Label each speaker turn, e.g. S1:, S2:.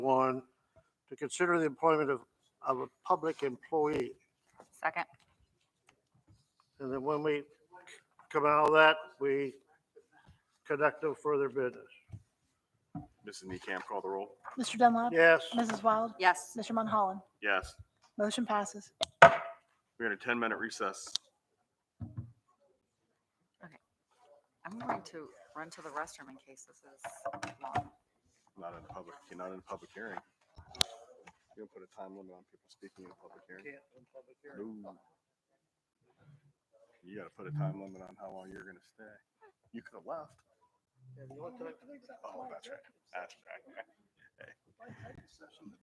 S1: to consider the employment of, of a public employee.
S2: Second.
S1: And then when we come out of that, we conduct no further business.
S3: Mrs. Neecamp, call the roll.
S4: Mr. Dunlap.
S1: Yes,
S4: Mrs. Wild.
S2: Yes.
S4: Mr. Monholland.
S3: Yes,
S4: Motion passes.
S3: we're in a 10-minute recess.
S2: I'm going to run to the restroom in case this is long.
S3: Not in public, not in a public hearing. You don't put a time limit on people speaking in a public hearing. No. You gotta put a time limit on how long you're gonna stay. You could have left. Oh, that's right. That's right.